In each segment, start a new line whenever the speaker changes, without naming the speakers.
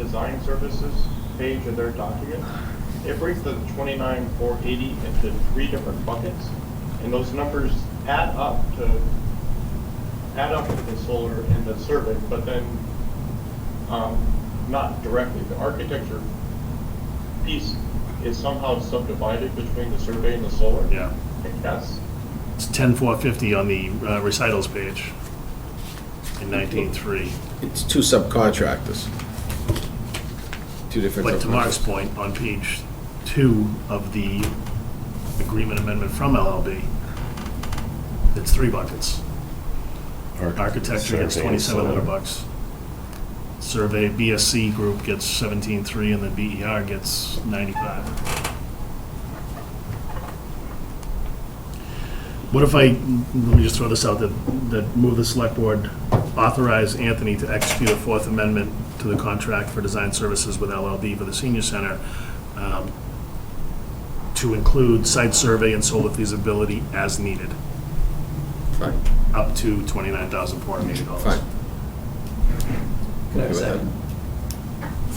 design services page of their document, it breaks the twenty-nine, four eighty into three different buckets, and those numbers add up to, add up with the solar and the survey, but then, um, not directly, the architecture piece is somehow subdivided between the survey and the solar.
Yeah.
I guess.
It's ten four fifty on the uh, recitals page in nineteen three.
It's two subcontractors. Two different.
But to Mark's
subcontractors.
point, on page two of the agreement amendment from LLB, it's three buckets. Architecture gets
Survey and
twenty-seven hundred
solar.
bucks. Survey, BSC group gets seventeen-three, and then BER gets ninety-five. What if I, let me just throw this out, that, that move the select board authorize Anthony to execute a Fourth Amendment to the contract for design services with LLB for the senior center um, to include site survey and solar feasibility as needed,
Fine,
up to twenty-nine thousand four hundred eighty dollars.
fine.
Can I have a
Okay with
second?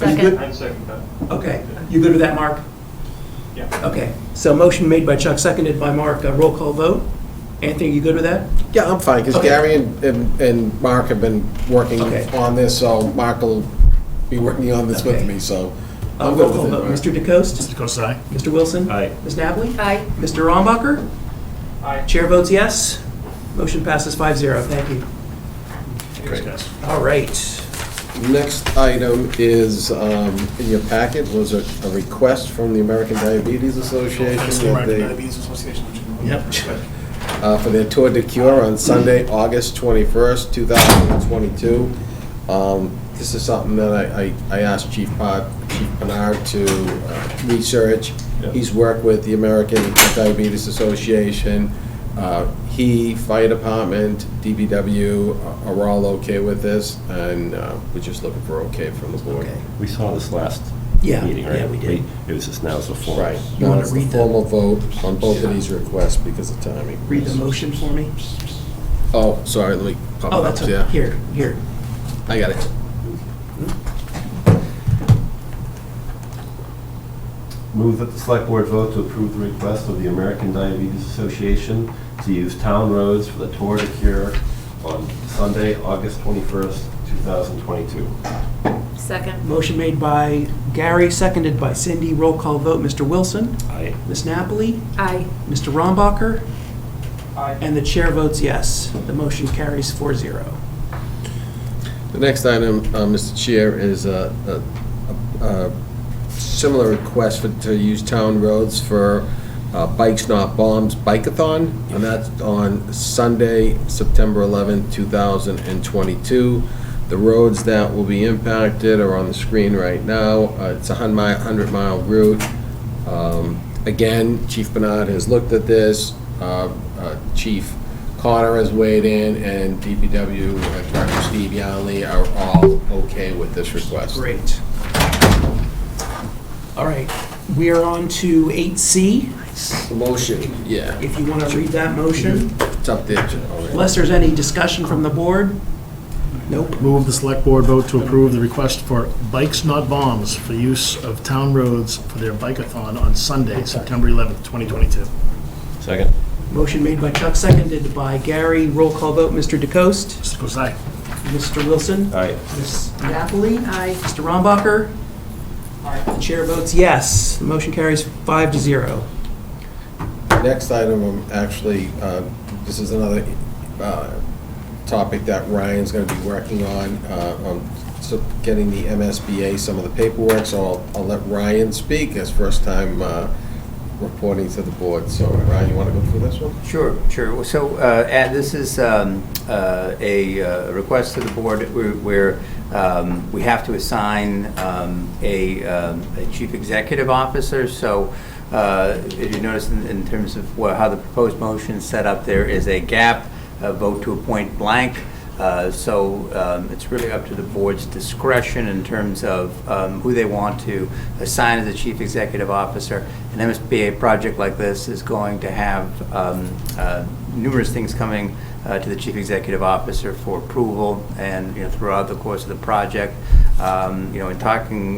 Are you
I
good?
second that,
Okay, you good with that, Mark?
yeah.
Okay, so motion made by Chuck, seconded by Mark, Uh, roll call vote. Anthony, you good with that?
Yeah, I'm fine, because
Okay.
Gary and, and- and Mark have been working
Okay.
on this, so Mark will be working on this with
Okay.
me, so.
Uh,
I'm
roll
good
call
with it.
vote.
Mark.
Mr. DeCoste?
Mr. Kosai?
Mr. Wilson?
Aye.
Ms. Napoli?
Aye.
Mr. Rombacher?
Aye.
Chair votes yes. Motion passes 5-0. Thank you.
Thanks, guys.
All right.
Next item is, um, in your packet was a, a request from the American Diabetes Association.
Thanks to
that
the American
they-
Diabetes Association. Yep.
uh, for their Tour de Cure on Sunday, August 21st, 2022. Um, This is something that I I I asked Chief Pod- Chief Bernard to uh, research.
Yeah.
He's worked with the American Diabetes Association. Uh, He, Fire Department, DBW uh, are all okay with this, and uh, we're just looking for okay from the board.
Okay.
We saw this last
Yeah,
meeting, right?
yeah, we did.
It was just now, it's a form.
Right.
You wanna
Now it's the
read the-
Formal vote on both of these requests because of timing.
Read the motion for me.
Oh, sorry, let me pop it
Oh,
up.
that's,
Yeah,
okay. here, here.
I got it.
Move that the select board vote to approve the request of the American Diabetes Association to use town roads for the Tour de Cure on Sunday, August 21st, 2022.
Second.
Motion made by Gary, seconded by Cindy. Roll call vote. Mr. Wilson?
Aye.
Ms. Napoli?
Aye.
Mr. Rombacher? And the chair votes yes. The motion carries 4-0.
The next item, uh, Mr. Chair, is a a- a- a similar request for, to use town roads for uh, Bikes Not Bombs Bikeathon, and that's on Sunday, September 11th, 2022. The roads that will be impacted are on the screen right now. Uh, It's a 100-mile route. Um, Again, Chief Bernard has looked at this, uh, uh, Chief Connor has weighed in, and DPW uh, Director Steve Yonley are all okay with this request.
Great. All right, we are on to 8C.
Motion, yeah,
If you want to read that motion,
it's up there. Jim, already.
unless there's any discussion from the board? Nope.
Move the select board vote to approve the request for Bikes Not Bombs for use of town roads for their bike-a-thon on Sunday, September 11th, 2022.
Second.
Motion made by Chuck, seconded by Gary. Roll call vote, Mr. DeCoste?
Mr. Kozai?
Mr. Wilson?
Aye.
Ms. Napoli?
Aye.
Mr. Rombacher? The chair votes yes. The motion carries five to zero.
Next item, um, actually, uh, this is another uh, topic that Ryan's going to be working on, uh, on so- getting the MSBA, some of the paperwork, so I'll- I'll let Ryan speak, as first time uh, reporting to the board. So Ryan, you want to go through this one?
Sure, sure. Well, So, uh, and this is um, uh, a uh, request to the board where- where um, we have to assign um, a um, a chief executive officer. So uh, if you notice in- in terms of wha- how the proposed motion is set up, there is a gap, a uh, vote to appoint blank. Uh, So um, it's really up to the board's discretion in terms of um, who they want to assign as the chief executive officer. An MSBA project like this is going to have um, uh, numerous things coming uh, to the chief executive officer for approval and, you know, throughout the course of the project. Um, You know, in talking